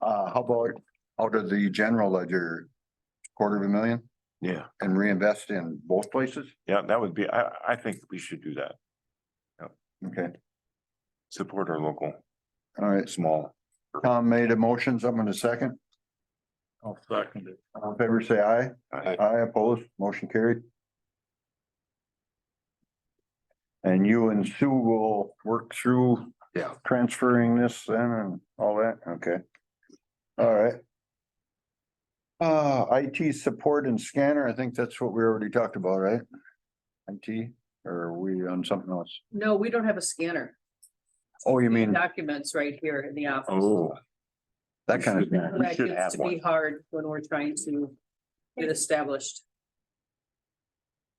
Uh, how about out of the general ledger, quarter of a million Yeah, and reinvest in both places? yeah, that would be, I, I think we should do that. Okay, Support our local, all right. small. Tom made a motion, someone a second. I'll second it. All in favor, say aye. I Aye opposed, motion carried. And you and Sue will work through. Yeah. Transferring this then and all that, okay. All right. Uh, IT support and scanner, I think that's what we already talked about, right? IT, or are we on something else? No, we don't have a scanner. Oh, you mean Documents right here in the office. Oh, that kind of thing, we That should have gets to be one. hard when we're trying to get established.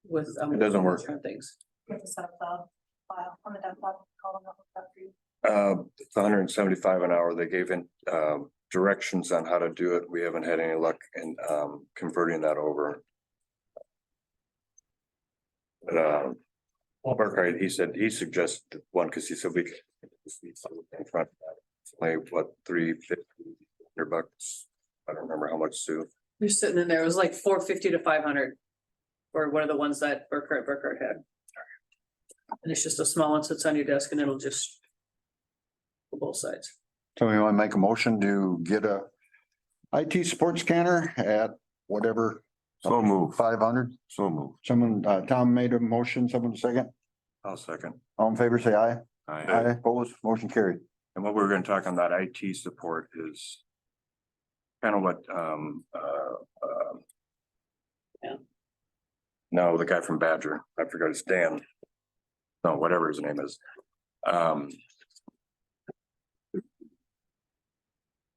With. um, It doesn't work. different Things. Get the SoundCloud file on the desktop, call them up, up for you. Uh, it's hundred and seventy-five an hour. They gave in, um, directions on how to do it. We haven't had any luck in, um, converting that over. But, um, Burkhardt, he said, he suggested one, cause he said we could. In front, of that. It's only what, three fifty, hundred bucks? I don't remember how much, Sue. You're sitting in there, it was like four fifty to five hundred. Or one of the ones that Burkhardt, Burkhardt had. And it's just a small one sits on your desk and it'll just. for Both sides. so we want to make a motion to get a IT support scanner at whatever, so move, five hundred? so move. Someone, uh, Tom made a motion, someone second. I'll second. All in favor, say aye. I, Opposed, motion carried. And what we we're gonna talk on that IT support is. Kind of what, um, uh, um. Yeah. No, the guy from Badger, I forgot his Dan. No, whatever his name is. Um.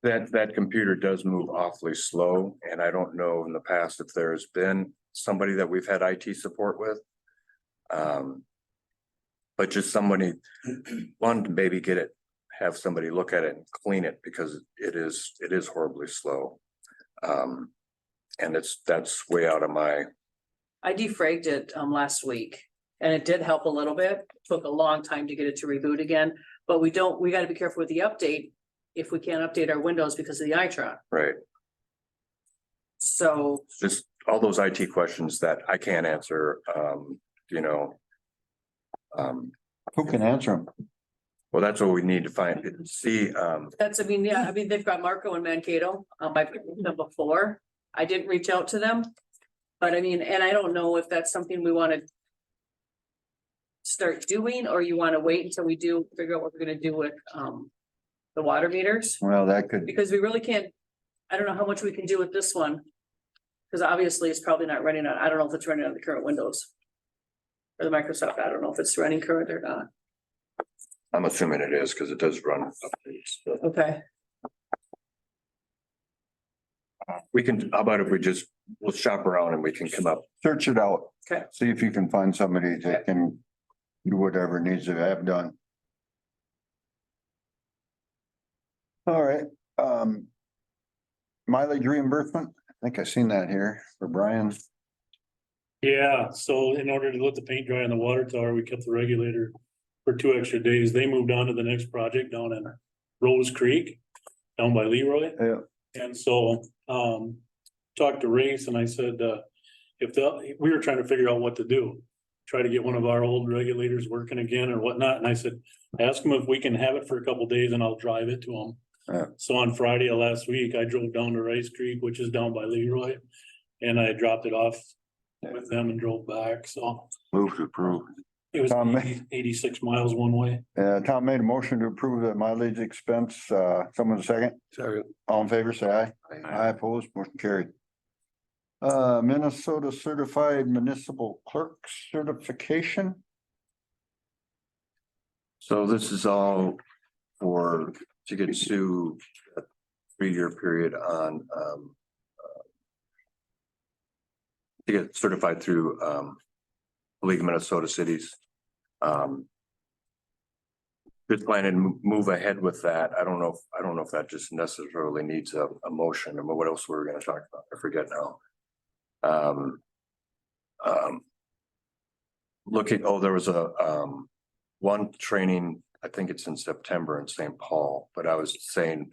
That, that computer does move awfully slow and I don't know in the past if there's been somebody that we've had IT support with. Um. But just somebody, one, to maybe get it have somebody look at it and clean it because it is, it is horribly slow. Um, and it's, that's way out of my, I defragged it um last week and it did help a little bit. Took a long time to get it to reboot again, but we don't, we gotta be careful with the update. If we can't update our windows because of the iTron, right, so just all those IT questions that I can't answer, um, you know. Um, Who can answer them? well, that's what we need to find, see, um, that's, I mean, yeah, I mean, they've got Marco and Mankato, um, I've met them before. I didn't reach out to them, but I mean, and I don't know if that's something we wanna start doing, or you wanna wait until we do figure out what we're gonna do with um the water meters. Well, that could, because we really can't, I don't know how much we can do with this one. Cause obviously it's probably not running on, I don't know if it's running on the current Windows. Or the Microsoft, I don't know if it's running current or not. I'm assuming it is because it does run. updates, but Okay. We can, how about if we just, we'll shop around and we can come up, search it out. Okay. See if you can find somebody that can do whatever needs to have done. All right, um. Mileage reimbursement, I think I seen that here for Brian. Yeah, so in order to let the paint dry on the water tower, we kept the regulator for two extra days. They moved on to the next project down in Rose Creek, down by Leroy. Yeah. And so, um, talked to Race and I said, uh, if the, we were trying to figure out what to do. Try to get one of our old regulators working again or whatnot. And I said, ask them if we can have it for a couple days and I'll drive it to Yeah. them. So on Friday of last week, I drove down to Rice Creek, which is down by Leroy. And I dropped it off with them and drove back, so move to approve. it was Um, 80 eighty-six miles one way. Uh, Tom made a motion to approve the mileage expense, uh, someone second, Sorry. all in favor, say aye. I, I oppose, motion carried. Uh, Minnesota Certified Municipal Clerk Certification. So this is all for, to get Sue a three-year period on, um, uh, to get certified through, um, League of Minnesota Cities. Um, just planning to mo- move ahead with that. I don't know, if- I don't know if that just necessarily needs a, a motion, and what else we were gonna talk about, I forget now. Um, um, looking, oh, there was a, um, one training, I think it's in September in St. Paul, but I was saying